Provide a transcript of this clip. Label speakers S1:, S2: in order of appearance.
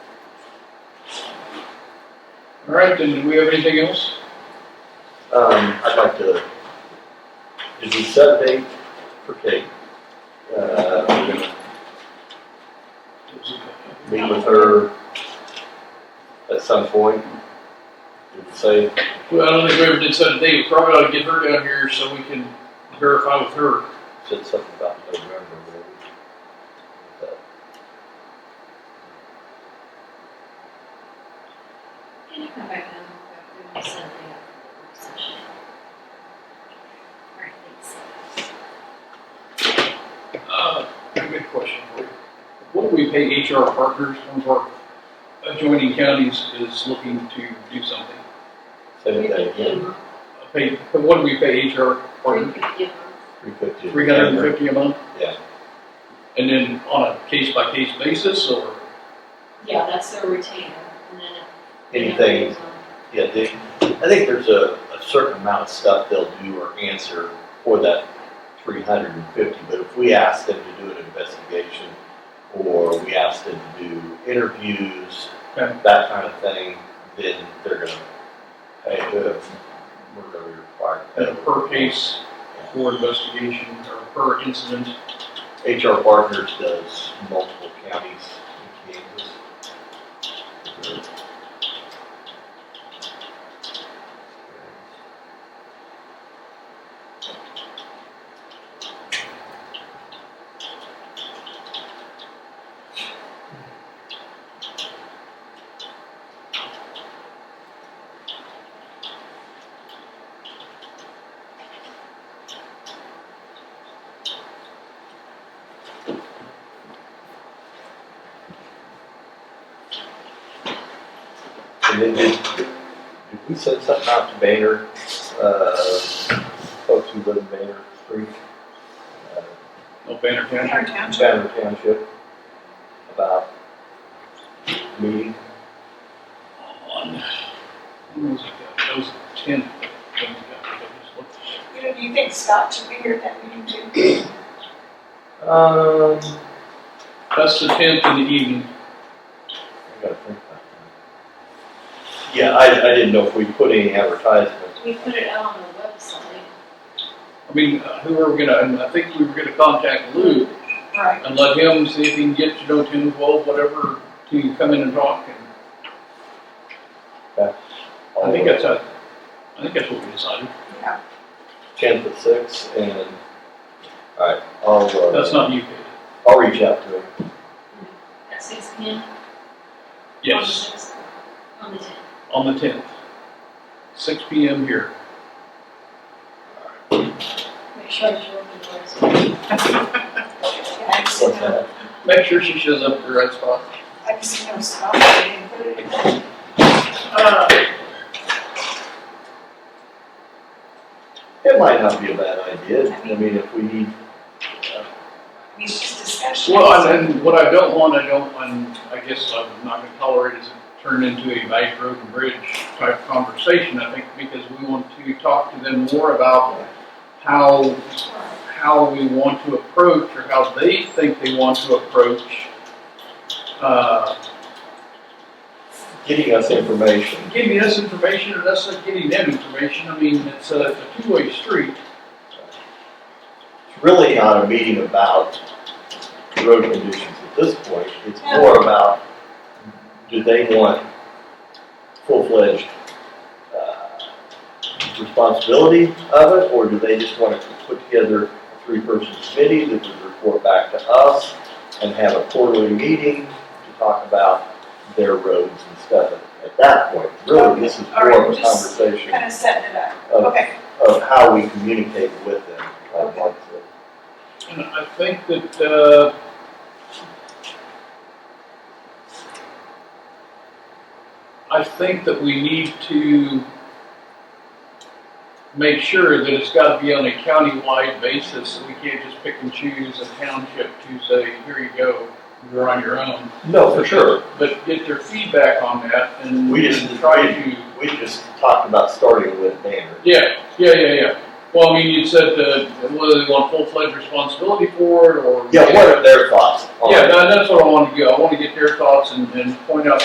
S1: All right, then, do we have anything else?
S2: Um, I'd like to, is the set date for Kate? Uh, we're gonna meet with her at some point. Did it say,
S1: Well, I don't think we ever did set a date, we probably ought to get her down here so we can verify with her.
S2: said something about November, maybe? But,
S3: Can you come back and look up who set the work session? All right, thanks.
S1: Uh, good question for you. What do we pay HR partners, one of our adjoining counties is looking to do something?
S2: Say that
S3: Three fifty a
S2: again,
S3: month,
S1: Pay, what do we pay HR
S3: three
S1: partners?
S3: fifty a month.
S2: three fifty.
S1: Three hundred and fifty a month?
S2: Yeah.
S1: And then on a case-by-case basis, or?
S3: Yeah, that's their retainer, and then. it-
S2: Anything Yeah, they, I think there's a, a certain amount of stuff they'll do or answer for that three hundred and fifty, but if we ask them to do an investigation, or we ask them to do interviews,
S1: Okay.
S2: that kind of thing, then they're gonna, pay uh, we're gonna be required.
S1: at a
S2: to
S1: per case for investigation or per incident.
S2: pay. HR Partners does multiple counties in Kansas. And then did, did we send something out to Banner, uh, folks who live in Banner Street? uh,
S1: No banner county.
S4: Our township,
S2: Banner Township about meeting?
S1: On, when was it? That was ten.
S4: you know, do you think Scott should be here at that meeting too?
S2: Um,
S1: That's the tenth in the evening.
S2: I gotta think about that. Yeah, I, I didn't know if we put any advertisements.
S3: We put it out on the website.
S1: I mean, uh, who are we gonna, and I think we were gonna contact Lou
S4: Right.
S1: and let him see if he can get to know Tim Wolf, whatever, to come in and talk. And I think that's, a- I think that's what we decided.
S4: Yeah,
S2: Ten to six and, alright, I'll,
S1: That's
S2: uh,
S1: not you, Kate.
S2: I'll reach out to him.
S3: At six P M?
S1: Yes,
S3: On the tenth.
S1: on the tenth, six P M here.
S3: Make sure it's open doors. Well,
S4: I just didn't know,
S1: Make sure she shows up at the right spot.
S4: I just didn't know Scott, I didn't put it in. Uh,
S2: It might not be a bad idea, I mean, if we need
S4: I mean, it's just discussion.
S1: Well, and and what I don't want, I don't, and I guess I'm not gonna tolerate is it turn into a bank road and bridge type conversation, I think, because we want to talk to them more about how, how we want to approach, or how they think they want to approach, uh,
S2: getting us information.
S1: giving us information, and us not getting them information, I mean, it's a, it's a two-way street.
S2: It's really not a meeting about road conditions at this point. It's more about, do they want full-fledged, uh, responsibility of it? Or do they just want to put together a three-person committee that would report back to us and have a quarterly meeting to talk about their roads and stuff? At that point, really, this is more of a
S4: Okay, all right, just-
S2: conversation
S4: Kind of setting it up,
S2: of
S4: okay,
S2: of how we communicate with them. like Mark said.
S1: And I think that, uh, I think that we need to make sure that it's gotta be on a county-wide basis, and we can't just pick and choose a township to say, here you go, you're on your own.
S2: No, for sure.
S1: But get their feedback on that and.
S2: We just-
S1: and Try to,
S2: We just talked about starting with Banner.
S1: yeah, yeah, yeah, yeah. Well, I mean, you said, uh, whether they want full-fledged responsibility for it, or.
S2: Yeah, what are their thoughts on
S1: Yeah, that- that's what I wanted to go. I want to get their thoughts and, and point out